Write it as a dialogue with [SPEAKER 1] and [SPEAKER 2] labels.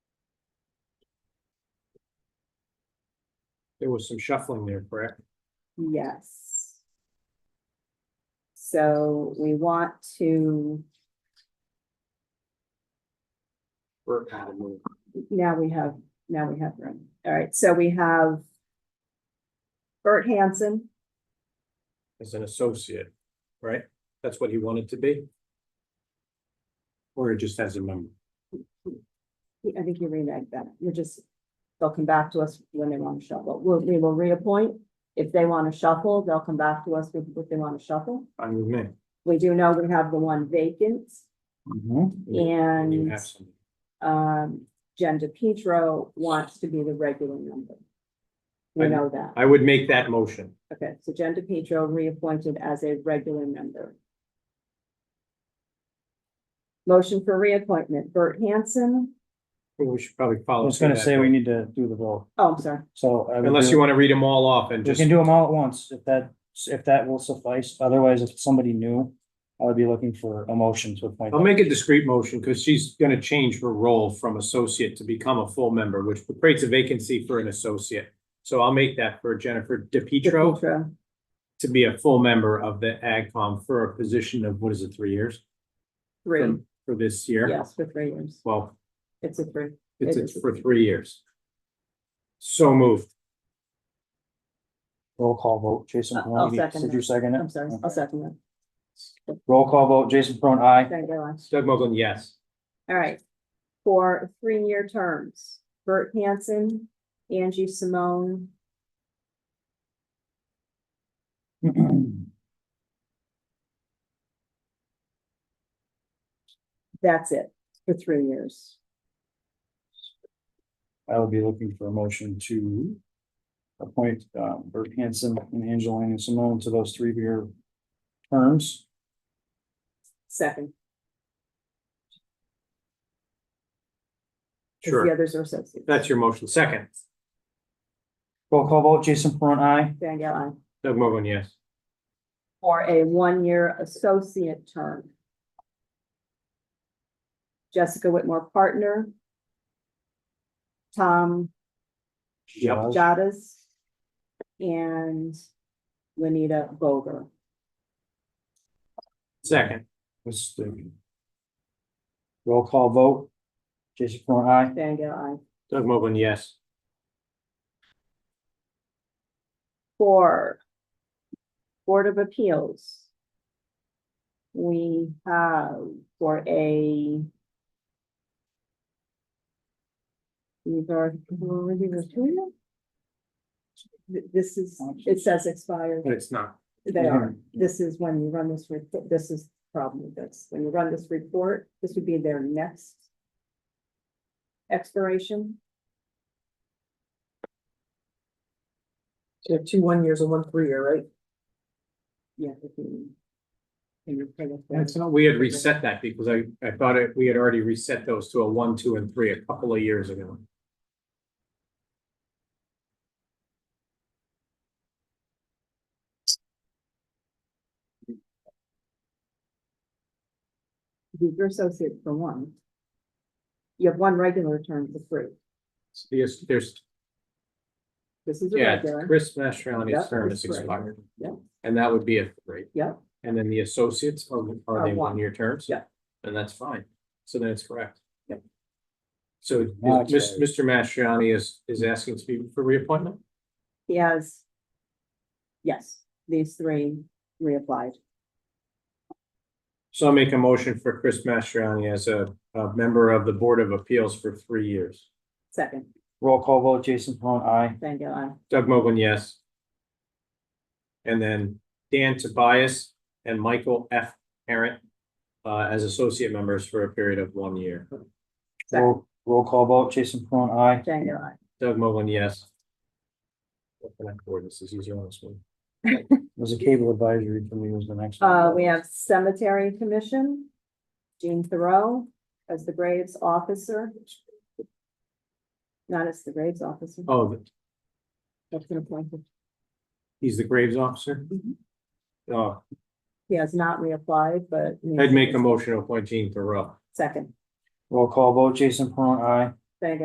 [SPEAKER 1] There was some shuffling there, correct?
[SPEAKER 2] Yes. So we want to,
[SPEAKER 1] Burke had a move.
[SPEAKER 2] now we have, now we have room. All right, so we have Bert Hanson.
[SPEAKER 1] as an associate, right? That's what he wanted to be? Or just as a member?
[SPEAKER 2] I think you reneged that. You're just, they'll come back to us when they want to shuffle. We'll, we will reappoint. If they want to shuffle, they'll come back to us with what they want to shuffle.
[SPEAKER 1] I'm with me.
[SPEAKER 2] We do know we have the one vacant,
[SPEAKER 3] Mm-hmm.
[SPEAKER 1] And you
[SPEAKER 2] And-
[SPEAKER 1] have some.
[SPEAKER 2] um, Jen DePietro wants to be the regular member. We
[SPEAKER 1] I-
[SPEAKER 2] know that.
[SPEAKER 1] I would make that motion.
[SPEAKER 2] Okay, so Jen DePietro reappointed as a regular member. Motion for reappointment, Bert Hanson.
[SPEAKER 1] We should probably follow.
[SPEAKER 3] I was gonna
[SPEAKER 1] through that.
[SPEAKER 3] say we need to do the vote,
[SPEAKER 2] Oh, I'm sorry.
[SPEAKER 3] so. I would
[SPEAKER 1] Unless
[SPEAKER 3] do-
[SPEAKER 1] you want to read them all off and
[SPEAKER 3] We
[SPEAKER 1] just,
[SPEAKER 3] can do them all at once, if that, if that will suffice, otherwise if it's somebody new, I would be looking for a motion to appoint.
[SPEAKER 1] I'll make a discreet motion because she's going to change her role from associate to become a full member, which creates a vacancy for an associate. So I'll make that for Jennifer DePietro
[SPEAKER 2] DePietro.
[SPEAKER 1] to be a full member of the AgCom for a position of, what is it, three years?
[SPEAKER 2] Three,
[SPEAKER 1] For this year?
[SPEAKER 2] yes, for three years.
[SPEAKER 1] Well,
[SPEAKER 2] It's a three.
[SPEAKER 1] It's,
[SPEAKER 2] It
[SPEAKER 1] it's
[SPEAKER 2] is.
[SPEAKER 1] for three years. So moved.
[SPEAKER 3] Roll call vote, Jason
[SPEAKER 2] I'll
[SPEAKER 3] Perron,
[SPEAKER 2] second
[SPEAKER 3] did you
[SPEAKER 2] that.
[SPEAKER 3] second
[SPEAKER 2] I'm
[SPEAKER 3] it?
[SPEAKER 2] sorry, I'll second that.
[SPEAKER 3] Roll call vote, Jason Peron, aye.
[SPEAKER 2] Thank you, Alex.
[SPEAKER 1] Doug Mogul, yes.
[SPEAKER 2] All right. For three-year terms, Bert Hanson, Angie Simone, that's it for three years.
[SPEAKER 3] I would be looking for a motion to appoint uh, Bert Hanson and Angelina Simone to those three-year terms.
[SPEAKER 2] Second, because the
[SPEAKER 1] Sure.
[SPEAKER 2] others are associates.
[SPEAKER 1] That's your motion. Second,
[SPEAKER 3] Roll call vote, Jason Peron, aye.
[SPEAKER 2] Van Galen.
[SPEAKER 1] Doug Mogul, yes.
[SPEAKER 2] for a one-year associate term. Jessica Whitmore, partner. Tom
[SPEAKER 1] Yep.
[SPEAKER 2] Jadas. And Lenita Boger.
[SPEAKER 1] Second,
[SPEAKER 3] Was the. Roll call vote, Jason Peron, aye.
[SPEAKER 2] Van Galen.
[SPEAKER 1] Doug Mogul, yes.
[SPEAKER 2] For Board of Appeals. We have for a. These are, were these the two of them? Th- This is, it says expired.
[SPEAKER 1] But it's not.
[SPEAKER 2] They
[SPEAKER 3] Mm-hmm.
[SPEAKER 2] are. This is when you run this report, this is the problem with this. When you run this report, this would be their next expiration.
[SPEAKER 4] So you have two one years and one three year, right?
[SPEAKER 2] Yeah. if you- and you're kind of-
[SPEAKER 1] That's not, we had reset that because I, I thought it, we had already reset those to a one, two, and three a couple of years ago.
[SPEAKER 2] These are associates for one. You have one regular term for three.
[SPEAKER 1] So There's, there's,
[SPEAKER 2] This is a
[SPEAKER 1] yeah,
[SPEAKER 2] regular.
[SPEAKER 1] Chris Mastroni's
[SPEAKER 2] Yep,
[SPEAKER 1] term is
[SPEAKER 2] that's right.
[SPEAKER 1] expired.
[SPEAKER 2] Yep.
[SPEAKER 1] And that would be a three.
[SPEAKER 2] Yep.
[SPEAKER 1] And then the associates, are, are
[SPEAKER 2] Are
[SPEAKER 1] they
[SPEAKER 2] one.
[SPEAKER 1] one-year terms?
[SPEAKER 2] Yep.
[SPEAKER 1] And that's fine. So then it's correct.
[SPEAKER 2] Yep.
[SPEAKER 1] So
[SPEAKER 3] Now
[SPEAKER 1] is
[SPEAKER 3] it's
[SPEAKER 1] Mis-
[SPEAKER 3] right.
[SPEAKER 1] Mr. Mastriani is, is asking to be for reappointment?
[SPEAKER 2] He has. Yes, these three reapplied.
[SPEAKER 1] So I'll make a motion for Chris Mastriani as a, a member of the Board of Appeals for three years.
[SPEAKER 2] Second,
[SPEAKER 3] Roll call vote, Jason Peron, aye.
[SPEAKER 2] Van Galen.
[SPEAKER 1] Doug Mogul, yes. And then Dan Tobias and Michael F. Parent uh, as associate members for a period of one year.
[SPEAKER 2] Second.
[SPEAKER 3] Roll, roll call vote, Jason Peron, aye.
[SPEAKER 2] Van Galen.
[SPEAKER 1] Doug Mogul, yes. Open up board, this is easier on this one.
[SPEAKER 3] Was a cable advisory committee was the next. one.
[SPEAKER 2] Uh, we have Cemetery Commission, Jean Thoreau as the Graves Officer. Not as the Graves Officer,
[SPEAKER 1] Oh,
[SPEAKER 2] that's been appointed.
[SPEAKER 1] he's the Graves officer?
[SPEAKER 2] Mhm.
[SPEAKER 1] Oh,
[SPEAKER 2] He has not reapplied, but.
[SPEAKER 1] I'd make a motion to appoint Gene Thoreau.
[SPEAKER 2] Second,
[SPEAKER 3] Roll call vote, Jason Peron, aye.